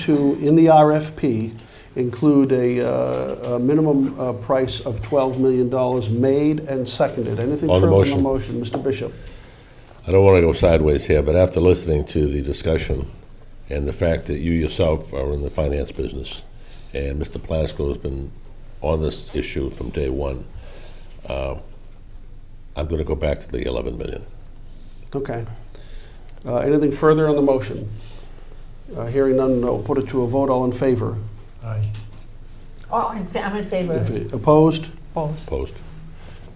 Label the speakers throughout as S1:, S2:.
S1: to, in the RFP, include a, uh, a minimum uh, price of $12 million made and seconded. Anything
S2: On the
S1: further on the
S2: motion.
S1: motion? Mr. Bishop?
S2: I don't want to go sideways here, but after listening to the discussion and the fact that you yourself are in the finance business, and Mr. Plasko has been on this issue from day one, uh, I'm going to go back to the 11 million.
S1: Okay. Uh, Anything further on the motion? Uh, Hearing none, no. Put it to a vote. All in favor?
S3: Aye.
S4: Oh, in fa- I'm in favor
S1: If
S4: of it.
S1: it- Opposed?
S4: Both.
S2: Opposed?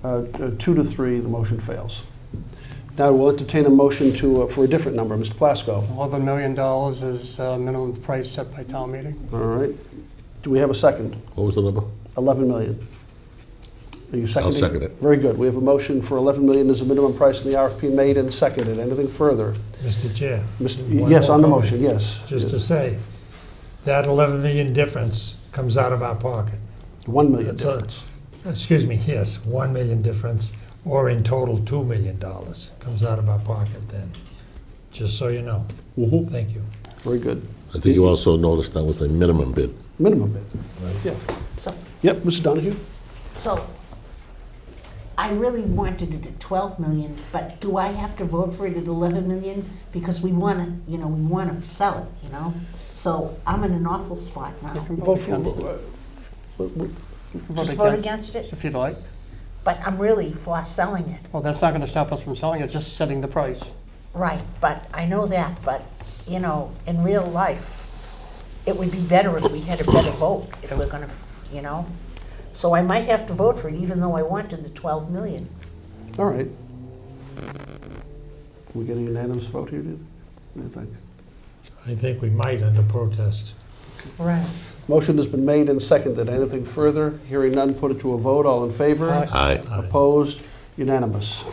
S1: Uh, uh, Two to three, the motion fails. Now we'll entertain a motion to, uh, for a different number. Mr. Plasko?
S3: Eleven million dollars is uh, minimum price set by town meeting.
S1: All right. Do we have a second?
S2: What was the number?
S1: 11 million. Are you seconding?
S2: second it.
S1: Very good. We have a motion for 11 million as a minimum price in the RFP made and seconded. Anything further?
S5: Mr. Chair.
S1: Mr.
S5: one
S1: Yes,
S5: more
S1: on the
S5: comment,
S1: motion, yes.
S5: Just to say, that 11 million difference comes out of our pocket.
S1: 1 million
S5: That's all.
S1: difference.
S5: Excuse me, yes, 1 million difference, or in total, $2 million comes out of our pocket then, just so you know.
S1: Mhm.
S5: Thank you.
S1: Very good.
S2: I think you also noticed that was a minimum bid.
S1: Minimum bid. Yeah.
S4: So,
S1: Yep, Mr. Donahue?
S4: so I really wanted it at 12 million, but do I have to vote for it at 11 million? Because we want to, you know, we want to sell it, you know? So I'm in an awful spot now.
S1: Vote for-
S3: against it.
S1: uh, w- w-
S3: You can
S4: Just vote against it,
S3: If you'd like.
S4: but I'm really for selling it.
S3: Well, that's not going to stop us from selling it, just setting the price.
S4: Right, but I know that, but, you know, in real life, it would be better if we had a better vote, if we're gonna, you know? So I might have to vote for it, even though I wanted the 12 million.
S1: All right. Can we get a unanimous vote here, do you- do you think?
S5: I think we might under protest.
S4: Right.
S1: Motion has been made and seconded. Anything further? Hearing none, put it to a vote. All in favor?
S3: Aye.
S2: Aye.
S5: Aye.
S1: Opposed? Unanimous.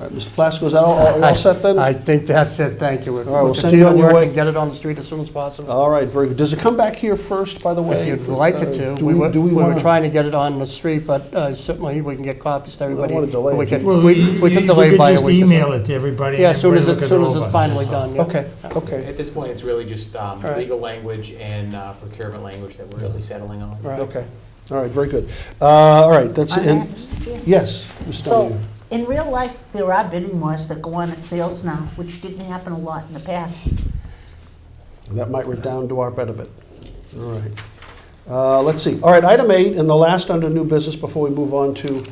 S1: All right, Mr. Plasko, is that all- all all set then?
S3: I think that's it, thank you.
S1: right, we'll
S3: We'll
S1: send you
S3: continue
S1: on
S3: to
S1: your
S3: work
S1: way.
S3: and get it on the street as soon as possible.
S1: All right, very good. Does it come back here first, by the way?
S3: If you'd like it
S1: Uh,
S3: to.
S1: Do
S3: We were,
S1: we, do we
S3: we were
S1: want to?
S3: trying to get it on the street, but uh, certainly we can get copies to everybody.
S1: wanna delay
S3: We
S1: it.
S3: could, we we could delay by a
S5: You could just
S3: week. or so.
S5: email it to everybody. and
S3: Yeah, as soon as,
S5: everybody
S3: it- as
S5: look
S3: soon as
S5: over,
S3: it's finally
S5: that's all.
S3: done, yeah.
S1: Okay, okay,
S6: At this point, it's really just um,
S3: All right.
S6: legal language and uh, procurement language that we're really settling on.
S3: Right.
S1: okay. All right, very good. Uh, All right, that's,
S4: On
S1: and,
S4: that, Mr. Chair?
S1: yes, Mr.
S4: So,
S1: Donahue.
S4: in real life, there are bidding wars that go on at sales now, which didn't happen a lot in the past.
S1: That might redound to our benefit. All right. Uh, Let's see. All right, item eight, and the last under new business before we move on to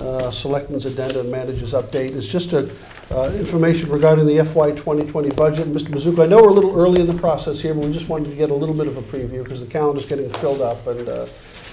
S1: uh, Selectmen's Addenda and Managers Update, is just a, uh, information regarding the FY 2020 budget. Mr. Mizuko, I know we're a little early in the process here, but we just wanted to get a little bit of a preview because the calendar's getting filled up. And uh,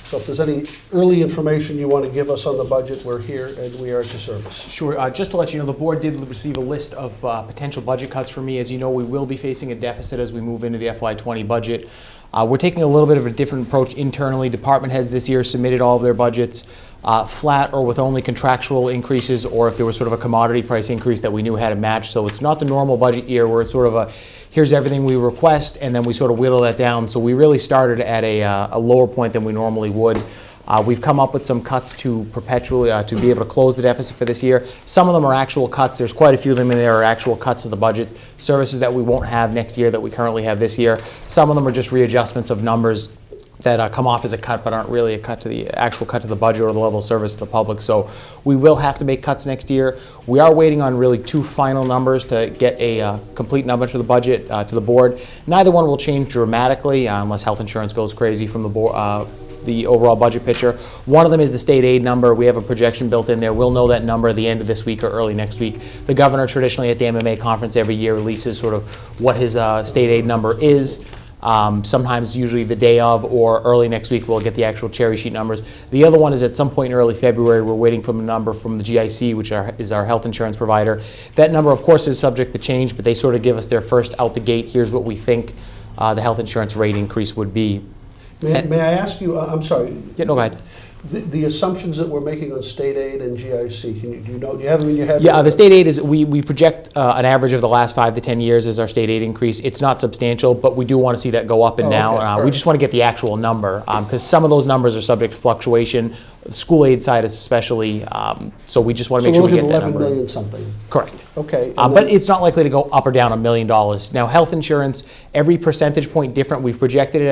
S1: so if there's any early information you want to give us on the budget, we're here and we are at your service.
S6: Sure. Uh, just to let you know, the board did receive a list of uh, potential budget cuts for me. As you know, we will be facing a deficit as we move into the FY20 budget. Uh, we're taking a little bit of a different approach internally. Department heads this year submitted all of their budgets uh, flat or with only contractual increases, or if there was sort of a commodity price increase that we knew had a match. So it's not the normal budget year where it's sort of a here's everything we request, and then we sort of whittle that down. So we really started at a, uh, a lower point than we normally would. Uh, We've come up with some cuts to perpetually, uh, to be able to close the deficit for this year. Some of them are actual cuts, there's quite a few of them in there are actual cuts to the budget, services that we won't have next year that we currently have this year. Some of them are just readjustments of numbers that uh, come off as a cut but aren't really a cut to the, actual cut to the budget or the level of service to the public. So we will have to make cuts next year. We are waiting on really two final numbers to get a uh, complete number to the budget, uh, to the board. Neither one will change dramatically uh, unless health insurance goes crazy from the board, uh, the overall budget picture. One of them is the state aid number. We have a projection built in there. We'll know that number at the end of this week or early next week. The governor traditionally at the MMA conference every year releases sort of what his uh, state aid number is. Um, sometimes, usually the day of or early next week, we'll get the actual cherry sheet numbers. The other one is at some point in early February, we're waiting for a number from the GIC, which are, is our health insurance provider. That number, of course, is subject to change, but they sort of give us their first out the gate here's what we think uh, the health insurance rate increase would be.
S1: May may I ask you, I- I'm sorry,
S6: Yeah, no, go ahead.
S1: the- the assumptions that we're making on state aid and GIC, can you, do you know, do you have them in your head?
S6: Yeah, uh, the state aid is, we, we project uh, an average of the last five to 10 years as our state aid increase. It's not substantial, but we do want to see that go up and
S1: Oh,
S6: down.
S1: okay,
S6: Uh,
S1: all
S6: We
S1: right.
S6: just want to get the actual number, because some of those numbers are subject to fluctuation, the school aid side especially, um, so we just want to
S1: So
S6: make
S1: we're
S6: sure we
S1: looking at
S6: get that
S1: 11
S6: number.
S1: million something.
S6: Correct.
S1: Okay.
S6: Uh,
S1: and
S6: But
S1: then-
S6: it's not likely to go up or down a million dollars. Now, health insurance, every percentage point different, we've projected it